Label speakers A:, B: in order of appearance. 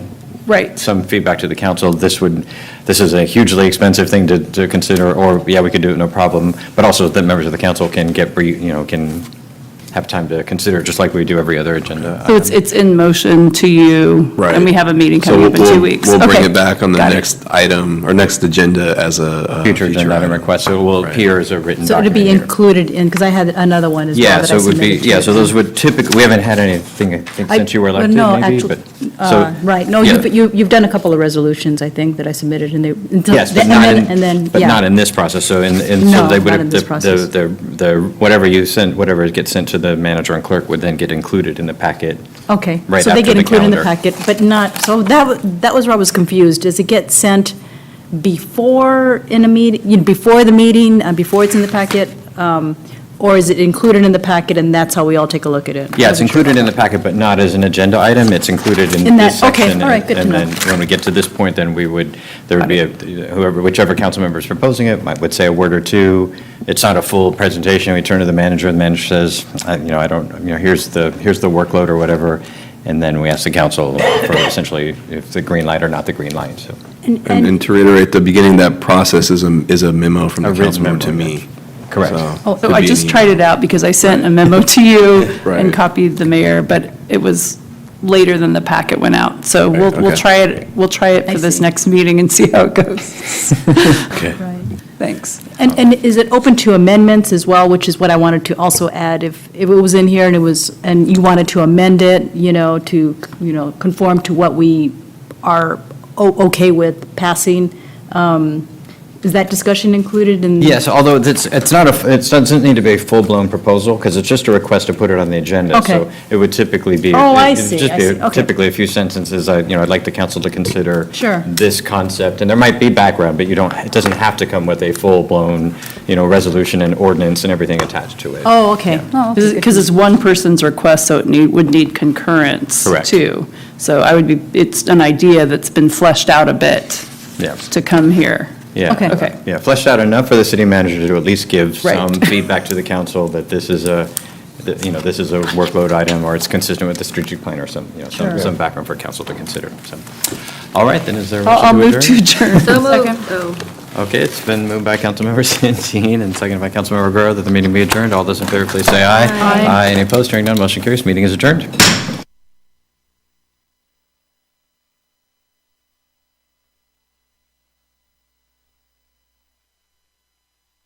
A: Right.
B: some feedback to the council, this would, this is a hugely expensive thing to, to consider, or, yeah, we could do it, no problem, but also the members of the council can get, brief- you know, can have time to consider, just like we do every other agenda.
A: So it's, it's in motion to you?
C: Right.
A: And we have a meeting
C: So
A: coming up in
C: we'll-
A: two weeks?
C: We'll bring
A: Okay.
C: it back on the
A: Got it.
C: next item, or next agenda as a. uh,
B: Future agenda item
C: item.
B: request, so it will
C: Right.
B: appear as a written
D: So it'd
B: document
D: be
B: here.
D: included in, because I had another one as well
B: Yeah,
D: that
B: so
D: I
B: it would be,
D: submitted to
B: yeah,
D: you.
B: so those would typically, we haven't had anything, I think,
D: I-
B: since you were
D: well,
B: elected,
D: no,
B: maybe,
D: actu-
B: but,
D: Uh,
B: so.
D: Right, no,
B: yeah.
D: you've, you- you've done a couple of resolutions, I think, that I submitted, and they. until-
B: Yes, but
D: and
B: not
D: then-
B: in,
D: And then,
B: but not
D: yeah,
B: in this process, so in, in, so
D: No,
B: they would
D: not in
B: have, the,
D: this process.
B: the, the, whatever you sent, whatever gets sent to the manager and clerk would then get included in the packet.
D: okay.
B: right
D: So they
B: after
D: get
B: the
D: included in the
B: calendar.
D: packet, but not, so that, wa- that was where I was confused. Does it get sent before in a meeting, you know, before the meeting, uh, before it's in the packet? um, Or is it included in the packet, and that's how we all take a look at it?
B: Yeah, it's included in the packet, but not as an agenda item, it's included in
D: In
B: this
D: that- okay,
B: section.
D: all right, good to know.
B: And then, when we get to this point, then we would, there would be a, whoever, whichever council member is proposing it, might, would say a word or two. It's not a full presentation, we turn to the manager, and the manager says, I- you know, I don't, you know, here's the, here's the workload or whatever, and then we ask the council for essentially if the green light or not the green light, so.
C: And and to reiterate, the beginning of that process is a, is a memo from
B: A
C: the
B: written
C: council member to
B: memo,
C: me.
B: Correct.
C: So-
A: Oh, So
C: Could
A: I
C: be
A: just
C: an
A: tried it out because I sent a memo to you and
C: Right.
A: copied the mayor, but it was later than the packet went out. So we'll,
C: Right,
A: we'll
C: okay.
A: try it, we'll try it
D: I
A: for this
D: see.
A: next meeting and see how it goes.
C: Okay.
D: Right.
A: Thanks.
D: And, and is it open to amendments as well, which is what I wanted to also add, if, if it was in here and it was, and you wanted to amend it, you know, to, you know, conform to what we are o- okay with passing, um, is that discussion included in?
B: Yes, although it's, it's not a, it doesn't need to be a full-blown proposal, because it's just a request to put it on the agenda.
D: Okay.
B: So it would typically be.
D: Oh, I
B: it'd
D: see,
B: just
D: I
B: be
D: see, okay.
B: Typically, a few sentences, I, you know, I'd like the council to consider.
D: Sure.
B: This concept, and there might be background, but you don't, it doesn't have to come with a full-blown, you know, resolution and ordinance and everything attached to it.
D: Oh, okay. Oh, okay, good.
A: Because it's one person's request, so it need, would need concurrence,
B: Correct.
A: too. So I would be, it's an idea that's been fleshed out a bit
B: Yeah.
A: to come here.
B: Yeah.
D: Okay.
A: Okay.
B: Yeah, fleshed out enough for the city manager to at least give
A: Right.
B: some feedback to the council that this is a, that, you know, this is a workload item, or it's consistent with the strategic plan, or some, you know, some,
D: Sure.
B: some background for council to consider, so. All right, then, is there a
A: I'll I'll
B: motion
A: move to
B: adjourn?
A: adjourn.
B: Okay, it's been moved by Councilmember Santeen and seconded by Councilmember Guerrero that the meeting be adjourned. All those in favor, please say aye. Aye. Any opposed? Hearing none, motion carries. Meeting is adjourned.